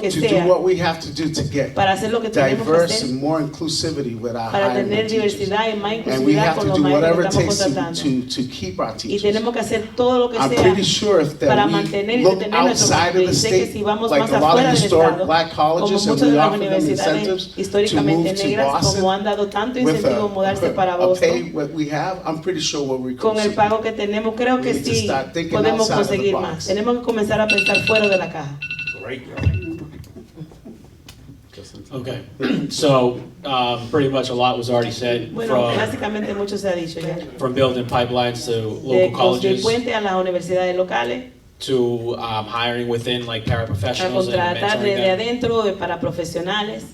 que to do sea what we have to do to get para hacer lo que tenemos que diverse hacer, and more inclusivity with our para hiring tener of teachers. diversidad y más And we inclusividad have con to los do maestros whatever que it estamos takes to, contratando. to, to keep our Y teachers. tenemos que hacer todo lo que I'm sea pretty sure if para that mantener we y look detener nuestro outside of país. the Sé que state, si vamos like más a lot afuera of del historic Estado, black como colleges, and muchas de we las offer them universidades incentives to históricamente move to negras, como Boston han dado tanto with a, incentivo mudarse para a pay Boston, what we have, I'm pretty sure we'll con recoup el some. pago que tenemos, creo que We need to sí start thinking podemos outside of the conseguir box. más. Tenemos que comenzar a pensar fuera de la caja. Okay, so, um, pretty much a lot was already said Bueno, from, básicamente mucho se ha dicho ya. from building pipelines to De local los del colleges puente a las universidades locales, to, um, hiring within like a paraprofessionals and contratar desde mentoring them. adentro de- para profesionales.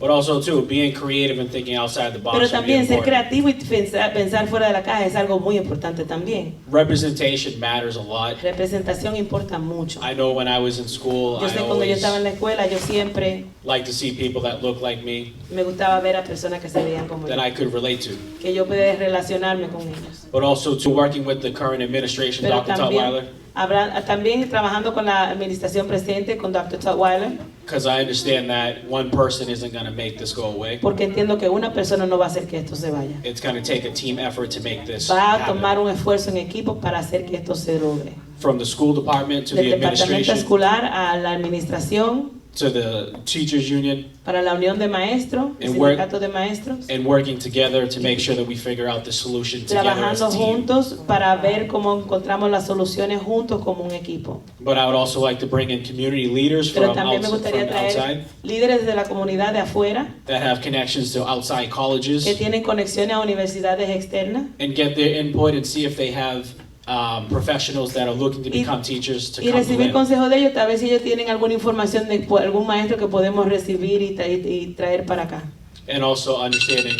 But also too, being creative and thinking outside the box Pero would be también ser important. creativo y pensar, pensar fuera de la caja es algo muy importante también. Representation matters a lot. Representación importa mucho. I know when I was in school, Yo I sé cuando yo always estaba en la escuela, yo siempre liked to see people that looked like me, me gustaba ver a personas que se veían como yo, that I could relate to. que yo pudiera relacionarme con ellos. But also to working with the current administration, Pero Dr. también, Tutwiler, habrá, también trabajando con la administración presente, con Dr. Tutwiler, because I understand that one person isn't gonna make this go away. porque entiendo que una persona no va a hacer que esto se vaya. It's going to take a team effort to make this Va a tomar happen. un esfuerzo en equipo para hacer que esto se logre. From the school department to Del the departamento administration, escolar a la administración, to the teachers union, para la unión de maestros, el And work- sindicato de maestros, and working together to make sure that we figure out the solution together as trabajando a team. juntos para ver cómo encontramos las soluciones juntos como un equipo. But I would also like to bring in community leaders Pero from también me outs- gustaría from traer outside líderes de la comunidad de afuera that have connections to outside que colleges tienen conexiones a universidades externas and get their input and see if they have um, professionals that are looking to Y- become teachers to y come recibir to it. consejos de ellos, tal vez si ellos tienen alguna información de po- algún maestro que podemos recibir y, tra- y traer para acá. And also understanding,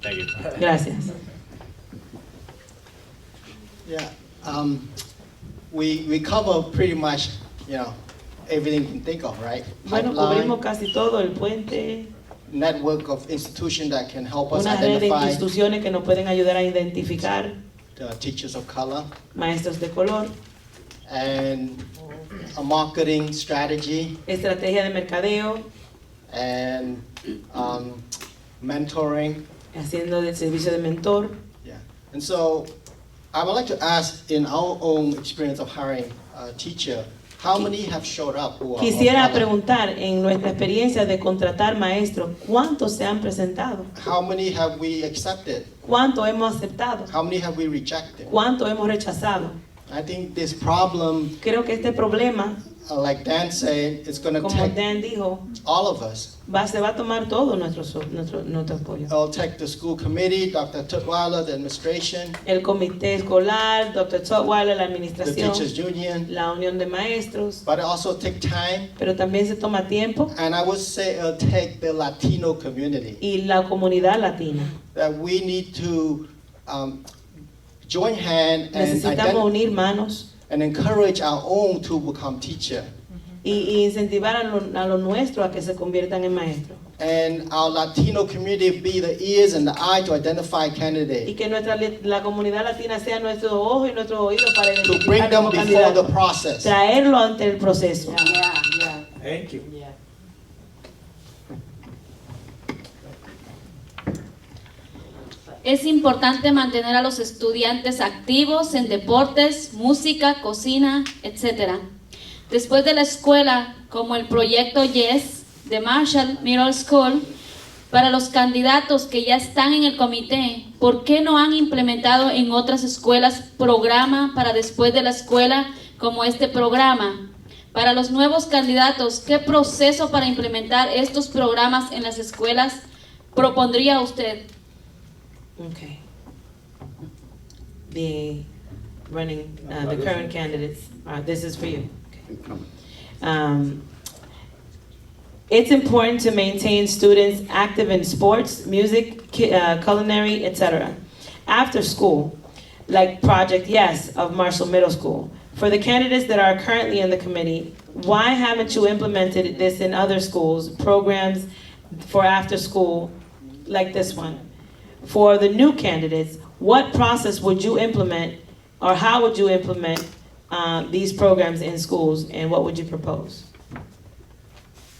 thank you. Gracias. Yeah, um, we, we cover pretty much, you know, everything you can think of, right? Bueno, cubrimos Pipeline, casi todo, el puente, network of institutions that can help us una red de identify instituciones que nos pueden ayudar a identificar the teachers of color, maestros de color, and a marketing strategy, estrategia de mercadeo, and, um, mentoring, haciendo el servicio de mentor. yeah. And so, I would like to ask, in our own experience of hiring a teacher, how many have showed up who are of Quisiera color? preguntar, en nuestra experiencia de contratar maestros, ¿cuántos se han presentado? How many have we accepted? ¿Cuántos hemos aceptado? How many have we rejected? ¿Cuántos hemos rechazado? I think this problem, Creo que este problema, uh, like Dan said, it's gonna como take Dan dijo, all of us. va, se va a tomar todo nuestro, so- nuestro, nuestro apoyo. It'll take the school committee, Dr. Tutwiler, the administration, El comité escolar, Dr. Tutwiler, la the administración, teachers union, la unión de maestros, but it also take time. pero también se toma tiempo And I would say it'll take the Latino community, y la comunidad latina. that we need to um, join hand and Necesitamos ident- unir manos and encourage our own to become teacher. y, y incentivar a los a lo nuestros a que se conviertan en maestros. And our Latino community be the ears and the eye to identify Y candidates, que nuestra, le- la comunidad latina sea nuestro ojo y nuestro oído para to identificar bring them como before the candidatos. process. Traerlo ante el proceso. Yeah, yeah. Thank you. Es importante mantener a los estudiantes activos en deportes, música, cocina, etc. Después de la escuela, como el proyecto Yes de Marshall Middle School, para los candidatos que ya están en el comité, ¿por qué no han implementado en otras escuelas programa para después de la escuela como este programa? Para los nuevos candidatos, ¿qué proceso para implementar estos programas en las escuelas propondría usted? Okay. The running, uh, the current candidates, uh, this is for you. Okay. Um, It's important to maintain students active in sports, music, cu- uh, culinary, etc. After school, like Project Yes of Marshall Middle School. For the candidates that are currently in the committee, why haven't you implemented this in other schools, programs for after school like this one? For the new candidates, what process would you implement or how would you implement uh, these programs in schools and what would you propose?